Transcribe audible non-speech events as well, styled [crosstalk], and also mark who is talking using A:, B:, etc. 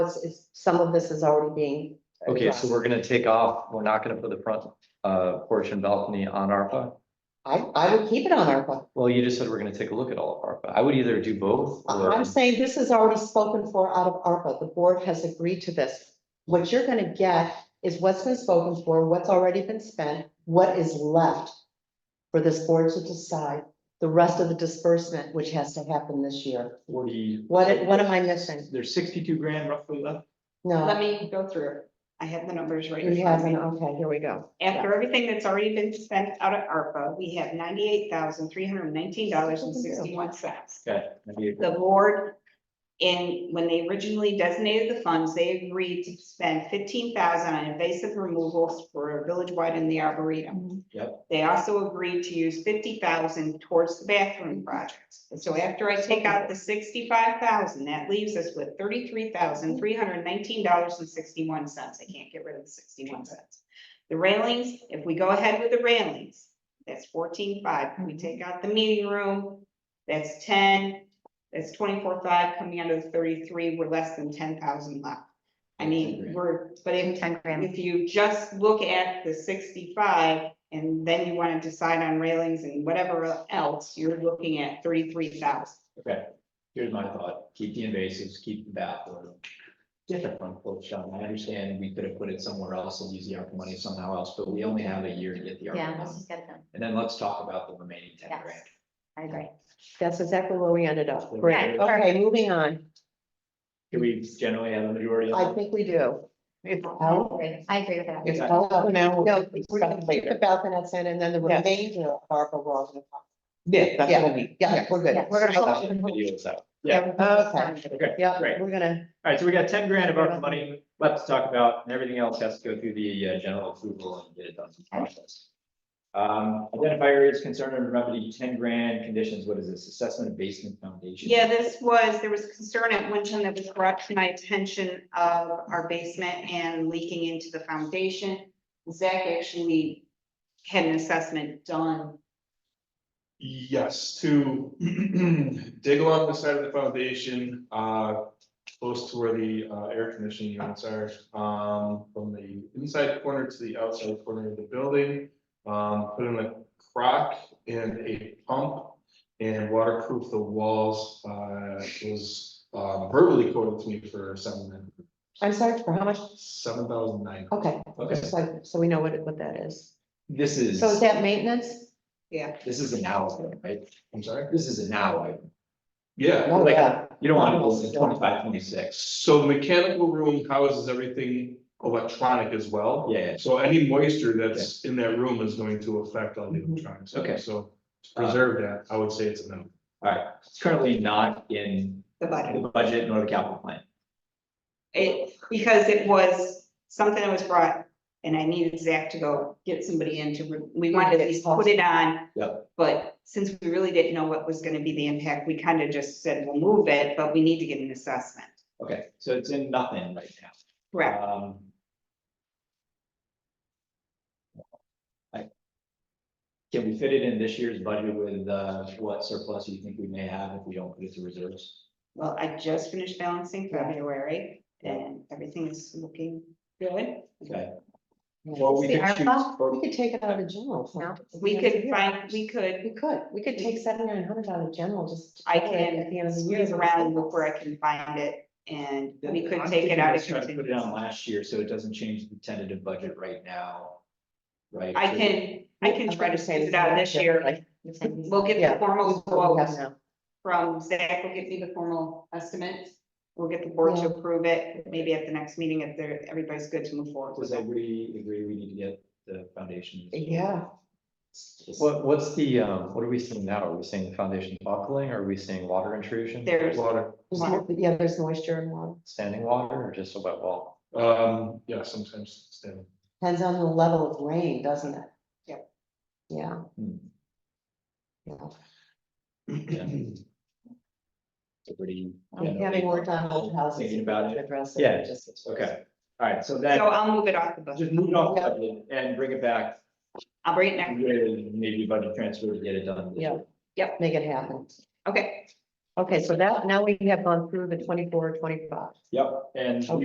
A: is- is- some of this is already being.
B: Okay, so
A: addressed.
B: we're gonna take off, we're not gonna put the front uh portion balcony on ARPA?
A: I, I would keep it on ARPA.
B: Well, you just said we're gonna take a look at all of ARPA. I would either do both or,
A: I'm saying this is already spoken for out of ARPA. The board has agreed to this. What you're gonna get is what's been spoken for, what's already been spent, what is left for this board to decide, the rest of the disbursement, which has to happen this year.
C: forty,
A: What, what am I missing?
C: there's sixty-two grand roughly left.
D: Let
A: No,
D: me go through. it. I have the numbers right. in
A: Uh, you
D: front of me.
A: haven't, okay, here we go.
D: After everything that's already been spent out of ARPA, we have ninety-eight thousand, three hundred nineteen dollars and sixty-one cents.
B: okay, maybe
D: The board, in, when they originally designated the funds, they agreed to spend fifteen thousand on invasive removals for village-wide in the arboretum.
B: Yep.
D: They also agreed to use fifty thousand towards the bathroom projects. And so after I take out the sixty-five thousand, that leaves us with thirty-three thousand, three hundred nineteen dollars and sixty-one cents. I can't get rid of the sixty-one cents. The railings, if we go ahead with the railings, that's fourteen-five. We take out the meeting room, that's ten. That's twenty-four-five coming out of the thirty-three. We're less than ten thousand left. I mean, we're, but if
E: Ten grand.
D: if you just look at the sixty-five and then you wanna decide on railings and whatever else, you're looking at thirty-three thousand.
C: Here's my thought, keep the invasives, keep the bathroom. Get the front porch done. I understand we could have put it somewhere else and used the ARPA money somehow else, but we only have a year to get the
E: Yeah,
C: ARPA
E: let's
C: money.
E: just get it done.
C: And then let's talk about the remaining ten
E: Yes.
C: grand.
E: I agree.
A: That's exactly where we ended up.
E: Okay,
A: Great. Okay, moving on.
C: Do we generally have a majority
A: I
C: on
A: think we do.
E: I agree. I agree with that.
C: that?
A: Oh, No, no, we're gonna keep the balconets in and then the
F: Yes.
A: remainder of ARPA we're all gonna talk.
F: Yeah, that's what I
A: Yeah,
F: mean.
A: yeah, we're good.
E: Yeah, we're gonna
A: Okay.
B: Videos out.
C: Yeah. Okay.
A: Yeah,
C: Great.
A: we're gonna,
C: All right, so we got ten grand of ARPA money left to talk about, and everything else has to go through the uh, general approval and get it done through the process. Um, identify areas concerned and remedy ten grand conditions, what is this, assessment of basement foundation?
D: Yeah, this was, there was concern at one time that was brought to my attention of our basement and leaking into the foundation. Zach actually had an assessment done.
G: Yes, to [clears throat] dig along the side of the foundation, uh, close to where the uh, air conditioning units are. Um, from the inside corner to the outside corner of the building, um, put in a crock and a pump. And waterproof the walls, uh, was uh, verbally quoted to me for seven,
A: I'm sorry, for how much?
G: seven thousand nine.
A: Okay,
C: Okay,
A: so, so we know what, it- what that is.
C: this is,
A: So is that maintenance?
C: this is an hour, right?
G: I'm sorry?
C: This is an hour.
G: Yeah.
A: Oh, yeah.
C: You don't want to go to twenty-five, twenty-six.
G: So the mechanical room houses everything electronic as well.
C: Yeah,
G: So any moisture that's in that room is going to affect all the
A: Mhm.
G: electronics.
C: Okay. Uh,
G: So to preserve that, I would say it's a no.
C: all right. It's currently not in
D: The budget.
C: the budget nor the capital plan.
D: It, because it was something that was brought, and I needed Zach to go get somebody in to, re- we wanted to at least put it on.
C: Yep.
D: But since we really didn't know what was gonna be the impact, we kind of just said, we'll move it, but we need to get an assessment.
C: Okay, so it's in nothing right now.
D: Correct.
C: Um. I- Can we fit it in this year's budget with, uh, what surplus you think we may have if we don't put it to reserves?
D: Well, I just finished balancing February, and everything is looking good.
C: Okay.
A: We
C: Or we
E: The
C: could choose-
E: ARPA?
C: or-
A: could take it out of general. fund.
D: We could find, we
A: We
D: could,
A: could, we could take seven, nine hundred out of general, just.
D: I
A: throw it At the end
D: can
A: of the year.
D: squeeze around and look where I can find it, and we could
C: I'm
D: take it
C: thinking
D: out
C: let's
D: of.
C: try to Put it
D: contingency.
C: on last year, so it doesn't change the tentative budget right now. Right?
D: I
C: So-
D: can, I can try to squeeze it out this year,
A: Like,
D: We'll get
A: Yeah.
D: the formal
A: what we have
D: quotes
A: now.
D: from Zach, will get me the formal estimate. We'll get the board to
A: Yeah.
D: approve it, maybe at the next meeting if they're, everybody's good to move forward
C: Does
D: with it.
C: everybody agree we need to get the foundation?
A: Yeah,
B: What, what's the, um, what are we seeing now? Are we seeing the foundation buckling? Are we seeing water intrusion?
D: There's,
G: Water,
A: There's mo- yeah, there's moisture in water,
B: Standing water or just a wet wall?
G: um, yeah, sometimes standing.
A: depends on the level of rain, doesn't it?
D: Yep.
A: Yeah,
C: Hmm,
A: yeah.
G: [clears throat]
C: yeah. Everybody.
A: Um, Having worked on old houses.
C: Thinking about it,
A: Address
C: Yeah,
A: it. just-
C: okay, all right, so
D: so
C: then.
D: I'll move it off the budget.
C: Just move it off budget and bring it back,
D: I'll bring it next,
C: with maybe budget transfer to get it done.
A: Yeah. Make it happen.
D: okay.
A: Okay, so that, now we have gone through the twenty-four, twenty-five.
C: Yep, and